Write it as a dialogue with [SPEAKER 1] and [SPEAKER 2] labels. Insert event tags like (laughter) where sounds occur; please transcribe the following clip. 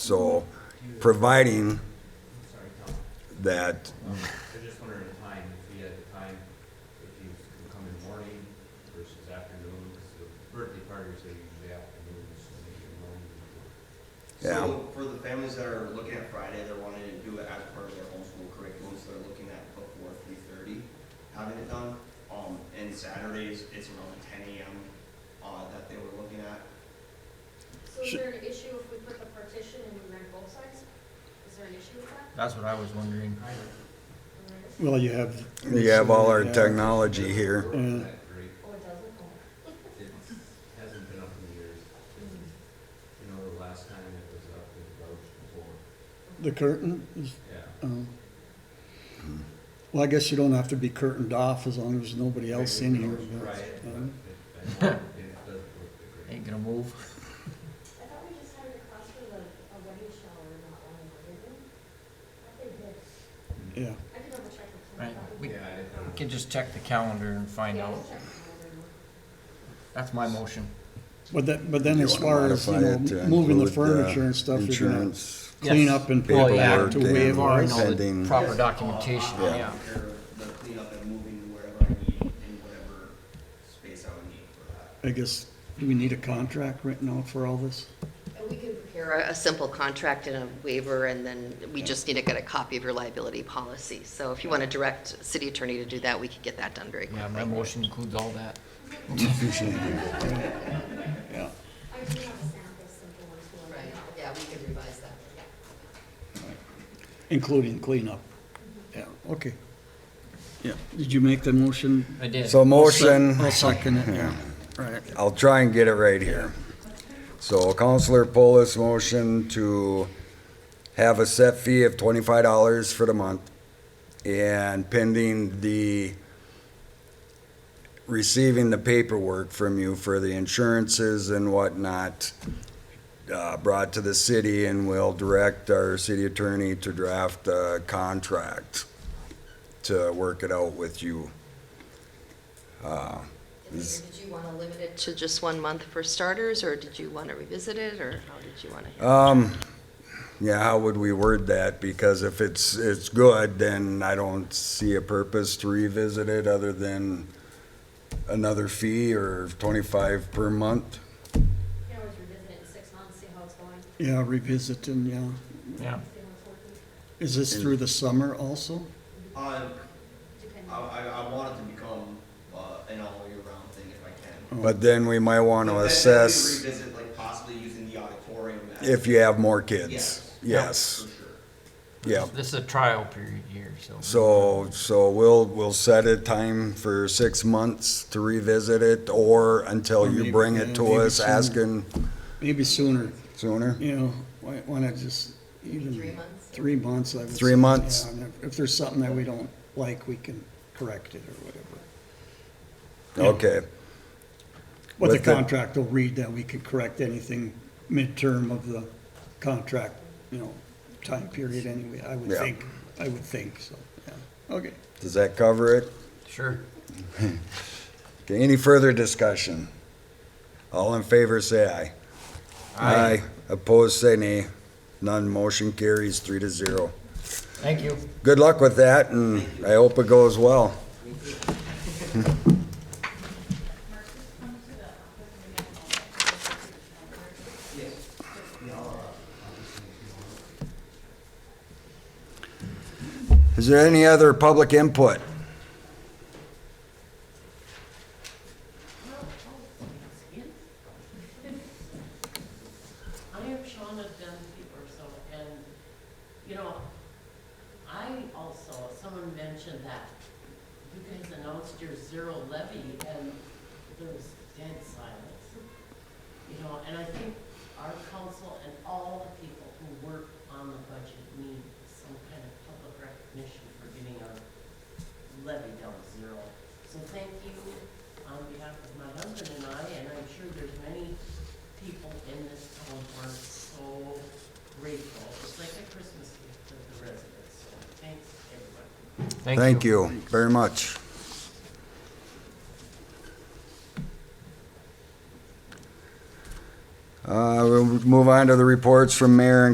[SPEAKER 1] So, providing that,
[SPEAKER 2] I just wondering the time, if you had the time, if you could come in the morning versus afternoon, 'cause the birthday parties, they usually afternoons, so maybe in the morning.
[SPEAKER 1] Yeah.
[SPEAKER 3] So for the families that are looking at Friday, they're wanting to do it as part of their homeschool curriculum, so they're looking at before three thirty, having it done. Um, and Saturdays, it's around ten AM, uh, that they were looking at.
[SPEAKER 4] So is there an issue if we put the partition and we rent both sides? Is there an issue with that?
[SPEAKER 5] That's what I was wondering.
[SPEAKER 4] Or is-
[SPEAKER 6] Well, you have.
[SPEAKER 1] you have all our
[SPEAKER 6] Yeah.
[SPEAKER 1] technology here.
[SPEAKER 6] Yeah.
[SPEAKER 2] That great,
[SPEAKER 4] Oh, it doesn't? Oh.
[SPEAKER 2] it hasn't been up in years.
[SPEAKER 4] Mm-hmm.
[SPEAKER 2] You know, the last time it was up, it was about before,
[SPEAKER 6] The curtain is,
[SPEAKER 2] yeah.
[SPEAKER 6] um, well, I guess you don't have to be curtained off as long as there's nobody else in here.
[SPEAKER 2] Maybe we can
[SPEAKER 6] but,
[SPEAKER 2] Try it, but
[SPEAKER 6] um,
[SPEAKER 2] it, I know it doesn't look that great.
[SPEAKER 5] Ain't gonna move. (laughs)
[SPEAKER 4] I thought we just had it across from a, a wedding shower, not one of the living. I think it is.
[SPEAKER 6] Yeah,
[SPEAKER 4] I can double check with
[SPEAKER 5] Right,
[SPEAKER 4] Kim.
[SPEAKER 5] we
[SPEAKER 2] Yeah, I didn't know.
[SPEAKER 5] can just check the calendar and find
[SPEAKER 4] Yeah,
[SPEAKER 5] out.
[SPEAKER 4] just check with Kim.
[SPEAKER 5] That's my motion.
[SPEAKER 6] but that, but then
[SPEAKER 1] You
[SPEAKER 6] as
[SPEAKER 1] wanna
[SPEAKER 6] far as, you
[SPEAKER 1] modify it
[SPEAKER 6] know,
[SPEAKER 1] to
[SPEAKER 6] moving the
[SPEAKER 1] include, uh,
[SPEAKER 6] furniture and stuff, you're gonna
[SPEAKER 1] Insurance,
[SPEAKER 6] clean
[SPEAKER 5] Yes.
[SPEAKER 6] up and
[SPEAKER 5] Oh,
[SPEAKER 6] pay
[SPEAKER 5] yeah.
[SPEAKER 6] back to
[SPEAKER 1] Paperwork
[SPEAKER 6] where it
[SPEAKER 1] and-
[SPEAKER 5] Or
[SPEAKER 6] was.
[SPEAKER 5] no, the
[SPEAKER 1] Pending-
[SPEAKER 5] Proper
[SPEAKER 3] Yes,
[SPEAKER 5] documentation,
[SPEAKER 3] uh, I'll
[SPEAKER 5] yeah.
[SPEAKER 3] take care of The cleanup and moving wherever I need and whatever space I would need for that.
[SPEAKER 6] I guess, do we need a contract written out for all
[SPEAKER 1] (laughs)
[SPEAKER 6] this?
[SPEAKER 7] And we can prepare a, a simple contract and a waiver, and then we just need to get a copy of your liability policy. So if you want to direct city attorney to do that, we could get that done very quickly.
[SPEAKER 5] Yeah, my motion includes all that.
[SPEAKER 6] Yeah.
[SPEAKER 4] I do have a sample simple one too. I
[SPEAKER 7] Right,
[SPEAKER 4] think.
[SPEAKER 7] yeah, we can revise that.
[SPEAKER 6] Including cleanup. Yeah, okay. Yeah, did you make the motion?
[SPEAKER 5] I did.
[SPEAKER 1] so motion,
[SPEAKER 6] I'll second it, yeah. Right.
[SPEAKER 1] I'll try and get it right here. So Counselor Polis motion to have a set fee of twenty-five dollars for the month and pending the receiving the paperwork from you for the insurances and whatnot uh, brought to the city and we'll direct our city attorney to draft a contract to work it out with you.
[SPEAKER 7] And then Did you want to limit it to just one month for starters, or did you want to revisit it, or how did you want to?
[SPEAKER 1] Um, yeah, how would we word that? Because if it's, it's good, then I don't see a purpose to revisit it other than another fee or twenty-five per month.
[SPEAKER 4] You can always revisit it in six months, see how it's going, see
[SPEAKER 6] Yeah, revisiting, yeah.
[SPEAKER 5] Yeah,
[SPEAKER 4] how it's working,
[SPEAKER 6] Is this through the summer also?
[SPEAKER 3] Uh,
[SPEAKER 4] depending.
[SPEAKER 3] I, I, I want it to become, uh, an all year round thing if I
[SPEAKER 6] Oh.
[SPEAKER 3] can.
[SPEAKER 1] But then we might want
[SPEAKER 3] But
[SPEAKER 1] to
[SPEAKER 3] then- then we
[SPEAKER 1] assess
[SPEAKER 3] Revisit like possibly using the auditorium as.
[SPEAKER 1] if you have more kids.
[SPEAKER 3] Yes.
[SPEAKER 1] Yes,
[SPEAKER 3] For sure.
[SPEAKER 1] yeah.
[SPEAKER 5] this is a trial period here, so.
[SPEAKER 1] So, so we'll, we'll set a time for six months to revisit it or
[SPEAKER 6] Or
[SPEAKER 1] until you
[SPEAKER 6] maybe-
[SPEAKER 1] bring it to
[SPEAKER 6] maybe
[SPEAKER 1] us
[SPEAKER 6] sooner.
[SPEAKER 1] asking
[SPEAKER 6] Maybe sooner,
[SPEAKER 1] sooner.
[SPEAKER 6] you know, why, why not just even.
[SPEAKER 7] Three months?
[SPEAKER 6] Three months, I would.
[SPEAKER 1] Three
[SPEAKER 6] say,
[SPEAKER 1] months.
[SPEAKER 6] yeah, and if- If there's something that we don't like, we can correct it or whatever.
[SPEAKER 1] Okay.
[SPEAKER 6] But the
[SPEAKER 1] With the-
[SPEAKER 6] contract will read that we could correct anything midterm of the contract, you know, time period anyway, I would
[SPEAKER 1] Yeah.
[SPEAKER 6] think, I would think, so, yeah, okay.
[SPEAKER 1] Does that cover it?
[SPEAKER 5] Sure.
[SPEAKER 1] (laughs) Okay, any further discussion? All in favor, say aye. Aye. Opposed, say nay. None, motion carries three to zero.
[SPEAKER 5] Thank you.
[SPEAKER 1] Good luck with that, and I hope it goes well. Is there any other public input?
[SPEAKER 8] I am Shawna Dunphy Urso, and, you know, I also, someone mentioned that you guys announced your zero levy and there was dead silence. You know, and I think our council and all the people who work on the budget need some kind of public recognition for getting our levy down to zero. So thank you on behalf of my husband and I, and I'm sure there's many people in this town who are so grateful. It's like a Christmas gift to the residents, so thanks, everyone.
[SPEAKER 1] Thank you very much. Uh, we'll move on to the reports from mayor and